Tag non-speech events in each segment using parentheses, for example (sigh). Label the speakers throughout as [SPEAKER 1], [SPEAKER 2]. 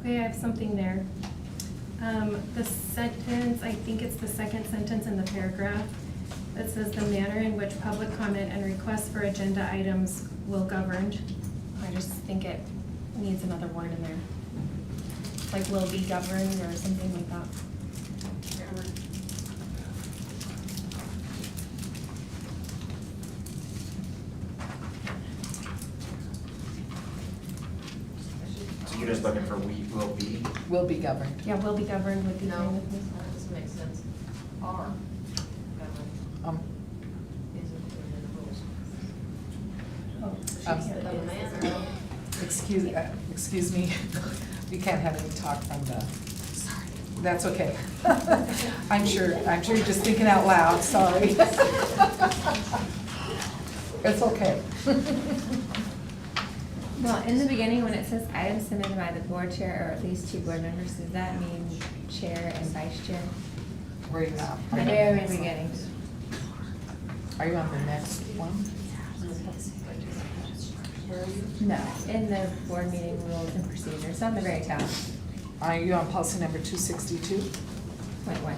[SPEAKER 1] Okay, I have something there. Um, The sentence, I think it's the second sentence in the paragraph, that says the manner in which public comment and requests for agenda items will governed. I just think it needs another word in there. Like will be governed or something like that.
[SPEAKER 2] So you're just looking for we will be?
[SPEAKER 3] Will be governed.
[SPEAKER 1] Yeah, will be governed would be fine
[SPEAKER 4] No,
[SPEAKER 1] with me.
[SPEAKER 4] that doesn't make sense. Are governed
[SPEAKER 3] Um,
[SPEAKER 4] is included in the rules.
[SPEAKER 1] Oh,
[SPEAKER 3] Um,
[SPEAKER 1] yeah,
[SPEAKER 4] The
[SPEAKER 1] it is.
[SPEAKER 4] manner,
[SPEAKER 3] Excuse, uh, excuse me, (laughs) we can't have any talk from the, that's okay. (laughs) I'm sure, I'm sure you're just thinking out
[SPEAKER 1] (laughs)
[SPEAKER 3] loud, sorry. (laughs) It's okay. (laughs)
[SPEAKER 5] Well, in the beginning, when it says items submitted by the board chair or at least two board members, does that mean chair and vice chair?
[SPEAKER 3] Where are you at?
[SPEAKER 5] The Very beginning.
[SPEAKER 3] Are you on the next one?
[SPEAKER 5] No, in the board meeting rules and procedures, on the very top,
[SPEAKER 3] Are you on policy number two sixty-two?
[SPEAKER 5] point one.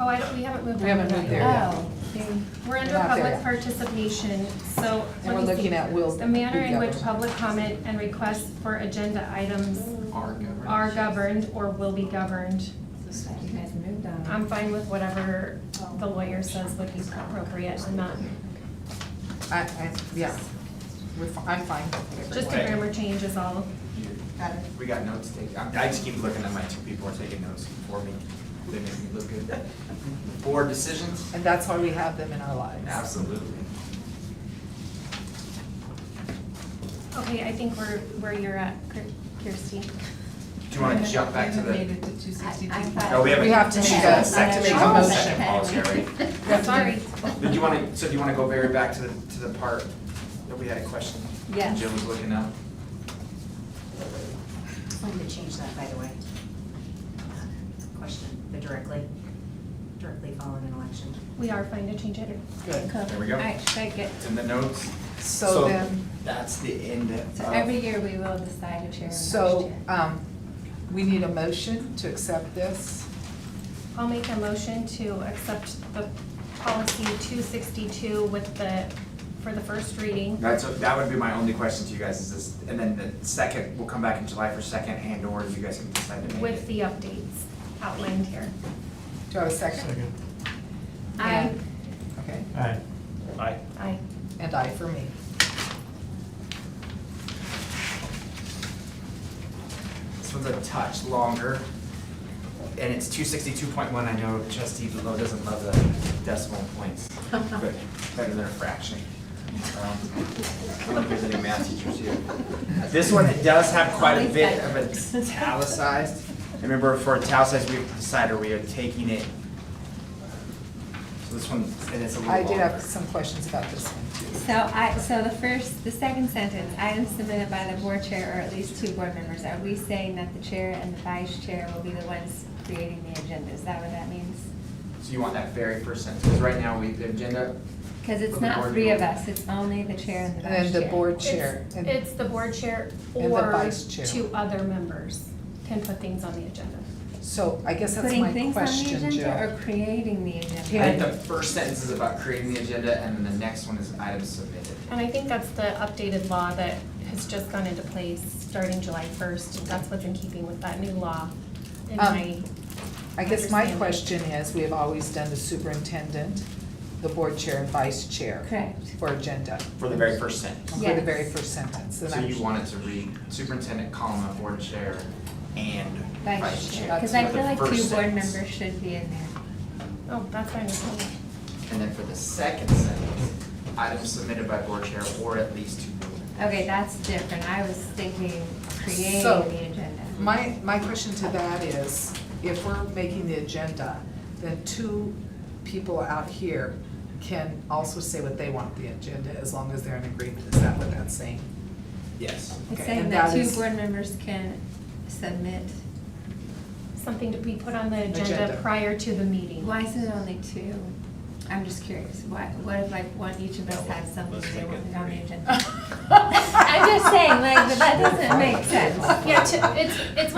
[SPEAKER 1] Oh, I don't, we haven't moved on.
[SPEAKER 3] We haven't
[SPEAKER 1] to that
[SPEAKER 3] moved
[SPEAKER 1] yet.
[SPEAKER 3] there yet.
[SPEAKER 5] Oh, see,
[SPEAKER 1] We're under
[SPEAKER 3] We're not there
[SPEAKER 1] public
[SPEAKER 3] yet.
[SPEAKER 1] participation, so.
[SPEAKER 3] And
[SPEAKER 1] let
[SPEAKER 3] we're
[SPEAKER 1] me see.
[SPEAKER 3] looking at will
[SPEAKER 1] The manner
[SPEAKER 3] be
[SPEAKER 1] in which
[SPEAKER 3] governed.
[SPEAKER 1] public comment and requests for agenda items
[SPEAKER 2] Are governed.
[SPEAKER 1] are governed or will be governed.
[SPEAKER 5] you guys moved on.
[SPEAKER 1] I'm fine with whatever the lawyer says would be appropriate, I'm not,
[SPEAKER 3] I, I, yeah, we're, fi- I'm fine. with
[SPEAKER 1] just a
[SPEAKER 2] Okay.
[SPEAKER 1] grammar change is all.
[SPEAKER 2] Got it. We got notes taken, I I just keep looking at my two people are taking notes for me, they make me look good. Board decisions?
[SPEAKER 3] And that's why we have them in our lives.
[SPEAKER 2] Absolutely.
[SPEAKER 1] Okay, I think we're, where you're at, Kir- Kirsty.
[SPEAKER 2] Do you wanna jump back to the? No,
[SPEAKER 5] No,
[SPEAKER 2] we haven't.
[SPEAKER 3] We have to
[SPEAKER 2] she's
[SPEAKER 3] make
[SPEAKER 2] on
[SPEAKER 3] a-
[SPEAKER 2] the second-
[SPEAKER 3] we have to
[SPEAKER 2] she's on the
[SPEAKER 3] make a
[SPEAKER 2] second policy already.
[SPEAKER 1] Sorry.
[SPEAKER 2] Did you wanna, so do you wanna go very back to the, to the part that we had a question?
[SPEAKER 5] Yes.
[SPEAKER 2] Jill was looking up.
[SPEAKER 6] When did they change that, by the way? Question, the directly, directly following an election.
[SPEAKER 1] We are fine to change it.
[SPEAKER 3] Good.
[SPEAKER 2] There we go.
[SPEAKER 5] All right, should I get,
[SPEAKER 2] It's in the notes.
[SPEAKER 3] So then,
[SPEAKER 2] That's the end of. uh,
[SPEAKER 5] so every year we will decide who chair and vice
[SPEAKER 3] so,
[SPEAKER 5] chair.
[SPEAKER 3] um, we need a motion to accept this.
[SPEAKER 1] I'll make a motion to accept the policy two sixty-two with the, for the first reading.
[SPEAKER 2] That's, that would be my only question to you guys, is this, and then the second, we'll come back in July for second and or you guys can decide to make it.
[SPEAKER 1] with the updates outlined here.
[SPEAKER 3] Do I have a second?
[SPEAKER 7] Second.
[SPEAKER 1] I,
[SPEAKER 3] Okay,
[SPEAKER 7] Aye.
[SPEAKER 2] Aye.
[SPEAKER 1] I,
[SPEAKER 3] and I for me.
[SPEAKER 2] This one's a touch longer, and it's two sixty-two point one, I know trustee Lowe doesn't love the decimal points, but better than a fraction. Um, I don't know if there's any math teachers here. This one, it does have quite a bit of italicized. Remember, for italicized, we decided we are taking it. So this one, and it's a little
[SPEAKER 3] I
[SPEAKER 2] longer.
[SPEAKER 3] did have some questions about this one too.
[SPEAKER 5] So I, so the first, the second sentence, items submitted by the board chair or at least two board members, are we saying that the chair and the vice chair will be the ones creating the agenda? Is that what that means?
[SPEAKER 2] So you want that very first sentence, because right now, we, the agenda,
[SPEAKER 5] Because it's
[SPEAKER 2] Of the
[SPEAKER 5] not
[SPEAKER 2] board
[SPEAKER 5] three of
[SPEAKER 2] chair.
[SPEAKER 5] us, it's only the chair and the vice chair.
[SPEAKER 3] And then the board chair.
[SPEAKER 1] it's,
[SPEAKER 3] and-
[SPEAKER 1] it's the board chair
[SPEAKER 3] And the
[SPEAKER 1] or
[SPEAKER 3] vice chair.
[SPEAKER 1] two other members can put things on the agenda.
[SPEAKER 3] So I guess that's
[SPEAKER 5] Putting
[SPEAKER 3] my
[SPEAKER 5] things on the
[SPEAKER 3] question,
[SPEAKER 5] agenda
[SPEAKER 3] Jill.
[SPEAKER 5] or creating the
[SPEAKER 2] I think the
[SPEAKER 5] agenda?
[SPEAKER 2] first sentence is about creating the agenda, and then the next one is items submitted.
[SPEAKER 1] And I think that's the updated law that has just gone into place starting July first. That's what's in keeping with that new law in
[SPEAKER 3] Um,
[SPEAKER 1] my,
[SPEAKER 3] I guess my
[SPEAKER 1] Understanding.
[SPEAKER 3] question is, we have always done the superintendent, the board chair and vice chair.
[SPEAKER 5] Correct.
[SPEAKER 3] For agenda,
[SPEAKER 2] For the very first sentence.
[SPEAKER 3] for the
[SPEAKER 5] Yes.
[SPEAKER 3] very first sentence. and
[SPEAKER 2] So
[SPEAKER 3] I'm-
[SPEAKER 2] you wanted to read superintendent, comma, board chair, and
[SPEAKER 5] Vice chair, because
[SPEAKER 2] For
[SPEAKER 5] I
[SPEAKER 2] the
[SPEAKER 5] feel like
[SPEAKER 2] first
[SPEAKER 5] two board
[SPEAKER 2] sentence.
[SPEAKER 5] members should be in there.
[SPEAKER 1] oh, that's fine with me.
[SPEAKER 2] And then for the second sentence, items submitted by board chair or at least two board members.
[SPEAKER 5] Okay, that's different. I was thinking creating
[SPEAKER 3] So,
[SPEAKER 5] the agenda.
[SPEAKER 3] My, my question to that is, if we're making the agenda, then two people out here can also say what they want the agenda, as long as they're in agreement, is that what that's saying?
[SPEAKER 2] Yes.
[SPEAKER 5] It's
[SPEAKER 3] okay,
[SPEAKER 5] saying
[SPEAKER 3] and
[SPEAKER 5] that
[SPEAKER 3] that
[SPEAKER 5] two
[SPEAKER 3] is- (laughs)
[SPEAKER 5] board members can submit,
[SPEAKER 1] Something to be put on the agenda
[SPEAKER 3] Agenda.
[SPEAKER 1] prior to the meeting.
[SPEAKER 5] why is it only two? I'm just curious, why, what if like one, each of us has something
[SPEAKER 7] Let's
[SPEAKER 5] they
[SPEAKER 7] make
[SPEAKER 5] want
[SPEAKER 7] it
[SPEAKER 5] to put on the
[SPEAKER 7] three.
[SPEAKER 5] agenda? I'm just saying, like, but that doesn't make sense.
[SPEAKER 1] Yeah, to, it's, it's